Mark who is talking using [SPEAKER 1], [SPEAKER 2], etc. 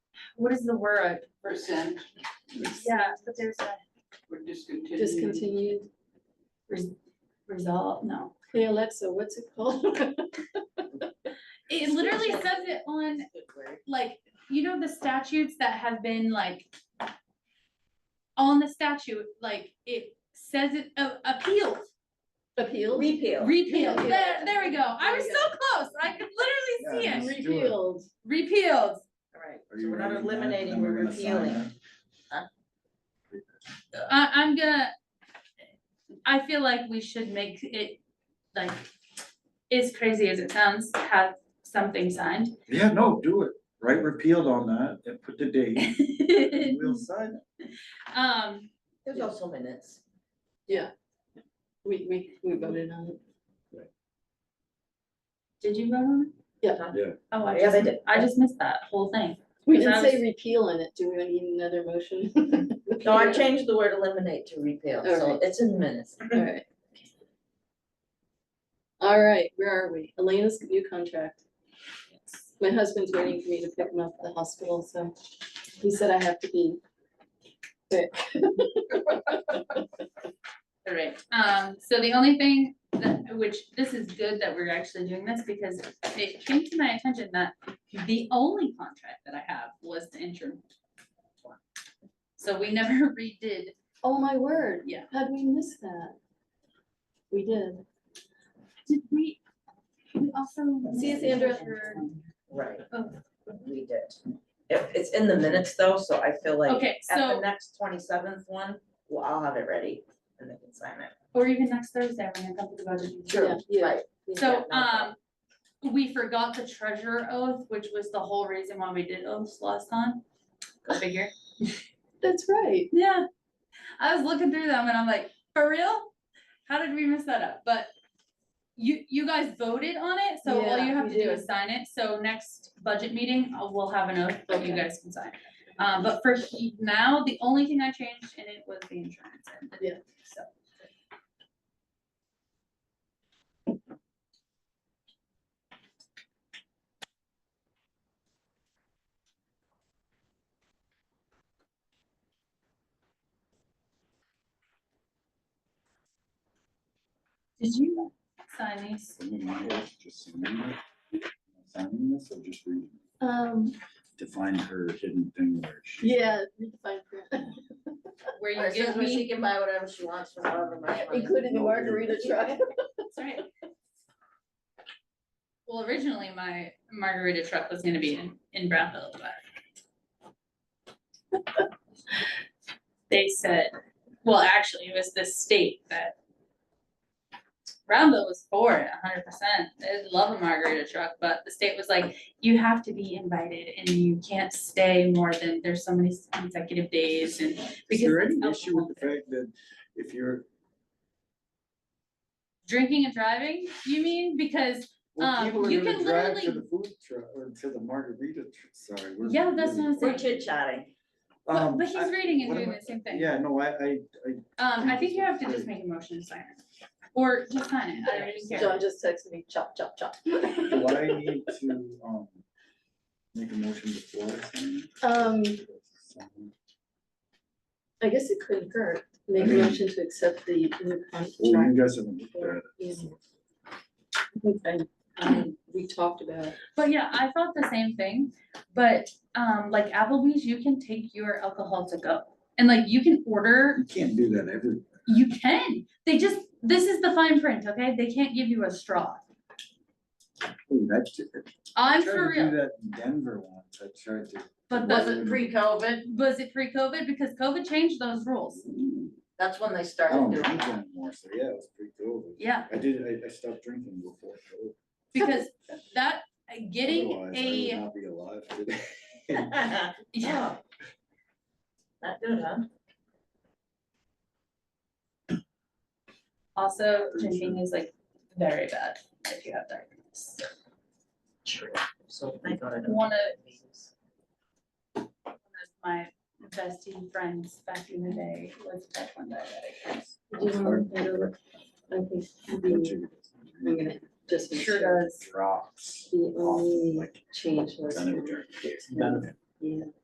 [SPEAKER 1] what is the word?
[SPEAKER 2] percent,
[SPEAKER 1] Yeah, but there's a.
[SPEAKER 2] we're discontinuing.
[SPEAKER 3] discontinued,
[SPEAKER 1] res- Result, no.
[SPEAKER 3] hey Alexa, what's it called?
[SPEAKER 1] It literally says it on like, you know, the statutes that have been like. On the statute, like it says it uh, appealed,
[SPEAKER 3] Appealed?
[SPEAKER 4] Repeal.
[SPEAKER 1] repealed,
[SPEAKER 3] Repealed.
[SPEAKER 1] there, there we go, I was
[SPEAKER 3] There
[SPEAKER 1] so
[SPEAKER 3] you
[SPEAKER 1] close, I could literally see
[SPEAKER 5] Yeah.
[SPEAKER 1] it,
[SPEAKER 5] Let's do it.
[SPEAKER 3] Repealed,
[SPEAKER 1] repealed.
[SPEAKER 4] Alright,
[SPEAKER 5] Are
[SPEAKER 4] so
[SPEAKER 5] you
[SPEAKER 4] we're not
[SPEAKER 5] writing that?
[SPEAKER 4] eliminating,
[SPEAKER 5] Then
[SPEAKER 4] we're
[SPEAKER 5] gonna sign
[SPEAKER 4] repealing.
[SPEAKER 5] that.
[SPEAKER 1] I, I'm gonna. I feel like we should make it, like, as crazy as it sounds, have something signed.
[SPEAKER 5] Yeah, no, do it, write repealed on that and put the date, and we'll sign it.
[SPEAKER 1] Um,
[SPEAKER 4] There's also minutes.
[SPEAKER 3] we, we, we voted on it.
[SPEAKER 1] did you vote on it?
[SPEAKER 3] Yeah.
[SPEAKER 1] Oh, I
[SPEAKER 4] Yes, I
[SPEAKER 1] just,
[SPEAKER 4] did.
[SPEAKER 1] I just missed that whole thing.
[SPEAKER 3] We
[SPEAKER 1] Because I
[SPEAKER 3] didn't say repeal on it, do we need another motion?
[SPEAKER 4] No, I changed the word eliminate to repeal, so
[SPEAKER 3] Alright.
[SPEAKER 4] it's in minutes.
[SPEAKER 3] Alright. Alright, where are we? Elena's new contract. My husband's waiting for me to pick him up at the hospital, so he said I have to be quick.
[SPEAKER 1] Alright, um, so the only thing that, which this is good that we're actually doing this because it came to my attention that the only contract that I have was the interim. one. So we never redid,
[SPEAKER 3] Oh my word.
[SPEAKER 1] Yeah.
[SPEAKER 3] How'd we miss that? We did.
[SPEAKER 1] did we, we also.
[SPEAKER 3] See, Sandra, for-
[SPEAKER 4] Right,
[SPEAKER 1] Oh,
[SPEAKER 4] we did. It, it's in the minutes though, so I feel like
[SPEAKER 1] Okay,
[SPEAKER 4] at the
[SPEAKER 1] so,
[SPEAKER 4] next twenty-seventh one, well, I'll have it ready and they can sign it.
[SPEAKER 1] or even next Thursday when I come to the budget.
[SPEAKER 3] Yeah, yeah.
[SPEAKER 4] Right.
[SPEAKER 1] So,
[SPEAKER 4] no
[SPEAKER 1] um,
[SPEAKER 4] problem.
[SPEAKER 1] we forgot the treasurer oath, which was the whole reason why we did oaths last time. Go figure.
[SPEAKER 3] That's right.
[SPEAKER 1] Yeah, I was looking through them and I'm like, for real? How did we mess that up? But you, you guys voted on it, so all
[SPEAKER 3] Yeah,
[SPEAKER 1] you have
[SPEAKER 3] we
[SPEAKER 1] to do
[SPEAKER 3] did.
[SPEAKER 1] is sign it. So next budget meeting, uh, we'll have an oath that you
[SPEAKER 3] Okay.
[SPEAKER 1] guys can sign. Um, but for he, now, the only thing I changed in it was the insurance and the,
[SPEAKER 3] Yeah.
[SPEAKER 1] so. Did you sign these?
[SPEAKER 5] And then my wife just signing it. Signing this or just reading?
[SPEAKER 3] Um,
[SPEAKER 5] Define her hidden thing where she.
[SPEAKER 3] yeah, redefine print,
[SPEAKER 1] Where
[SPEAKER 4] Alright,
[SPEAKER 1] you
[SPEAKER 4] so
[SPEAKER 1] give
[SPEAKER 4] when she
[SPEAKER 1] me,
[SPEAKER 4] can buy whatever she wants from however much money.
[SPEAKER 3] including the margarita truck.
[SPEAKER 1] sorry. Well, originally my margarita truck was gonna be in, in Brownville, but. They said, well, actually, it was the state that. Brownville was for it hundred percent. They'd love a margarita truck, but the state was like, you have to be invited and you can't stay more than, there's so many consecutive days and.
[SPEAKER 5] Is
[SPEAKER 1] because
[SPEAKER 5] there any
[SPEAKER 1] it's
[SPEAKER 5] issue with the
[SPEAKER 1] alcohol.
[SPEAKER 5] fact that if you're,
[SPEAKER 1] Drinking and driving, you mean? Because
[SPEAKER 5] well,
[SPEAKER 1] Um,
[SPEAKER 5] people are
[SPEAKER 1] you
[SPEAKER 5] gonna
[SPEAKER 1] can
[SPEAKER 5] drive to
[SPEAKER 1] literally-
[SPEAKER 5] the food truck or to the margarita, tr- sorry. we're
[SPEAKER 1] Yeah, that's
[SPEAKER 5] really-
[SPEAKER 1] what I'm
[SPEAKER 4] We're
[SPEAKER 1] saying.
[SPEAKER 4] chit-chatting.
[SPEAKER 1] But,
[SPEAKER 5] Um,
[SPEAKER 1] but he's
[SPEAKER 5] I-
[SPEAKER 1] reading and
[SPEAKER 5] what
[SPEAKER 1] doing
[SPEAKER 5] am I-
[SPEAKER 1] the same thing.
[SPEAKER 5] Yeah, no, I, I, I
[SPEAKER 1] Um, I think you have to
[SPEAKER 5] Great.
[SPEAKER 1] just make a motion to sign it. Or just sign it, I don't even care.
[SPEAKER 3] John just texted me chop, chop, chop.
[SPEAKER 5] Do I need to, um, make a motion before I sign?
[SPEAKER 3] Um,
[SPEAKER 5] it?
[SPEAKER 3] I guess it couldn't hurt, make a
[SPEAKER 5] I mean-
[SPEAKER 3] motion to accept the new
[SPEAKER 5] Well,
[SPEAKER 3] contract.
[SPEAKER 5] you guys haven't looked at it.
[SPEAKER 3] Yeah. I think I- um, we talked about,
[SPEAKER 1] But yeah, I thought the same thing, but, um, like Applebee's, you can take your alcohol to go. And like, you can order,
[SPEAKER 5] You can't do that every,
[SPEAKER 1] you can, they just, this is the fine print, okay? They can't give you a straw.
[SPEAKER 5] Ooh, that's. I
[SPEAKER 1] I'm
[SPEAKER 5] tried
[SPEAKER 1] for
[SPEAKER 5] to
[SPEAKER 1] real,
[SPEAKER 5] Do that in Denver once, I tried to.
[SPEAKER 1] but
[SPEAKER 5] Was
[SPEAKER 1] the,
[SPEAKER 5] it
[SPEAKER 4] pre-COVID?
[SPEAKER 1] was it pre-COVID? Because COVID changed those rules.
[SPEAKER 4] That's when they
[SPEAKER 5] I
[SPEAKER 4] started
[SPEAKER 5] don't
[SPEAKER 4] doing
[SPEAKER 5] drink
[SPEAKER 4] that.
[SPEAKER 5] anymore, so yeah, it was pretty cool.
[SPEAKER 1] Yeah,
[SPEAKER 5] I did, I, I stopped drinking before COVID.
[SPEAKER 1] because that, getting
[SPEAKER 5] Otherwise, I would
[SPEAKER 1] a,
[SPEAKER 5] not be alive today.
[SPEAKER 1] yeah.
[SPEAKER 4] Oh. Not good, huh?
[SPEAKER 1] Also,
[SPEAKER 5] Pretty
[SPEAKER 1] drinking is like very bad if you have diabetes.
[SPEAKER 4] True. So thank God I don't.
[SPEAKER 1] One One of my bestie friends back in the day was type one diabetic.
[SPEAKER 3] do you want to over? I think the- I'm gonna just make
[SPEAKER 1] Sure
[SPEAKER 3] sure
[SPEAKER 1] does.
[SPEAKER 5] Drops.
[SPEAKER 3] the only
[SPEAKER 5] Like,
[SPEAKER 3] change was.
[SPEAKER 5] kind of a drink.
[SPEAKER 3] Yeah.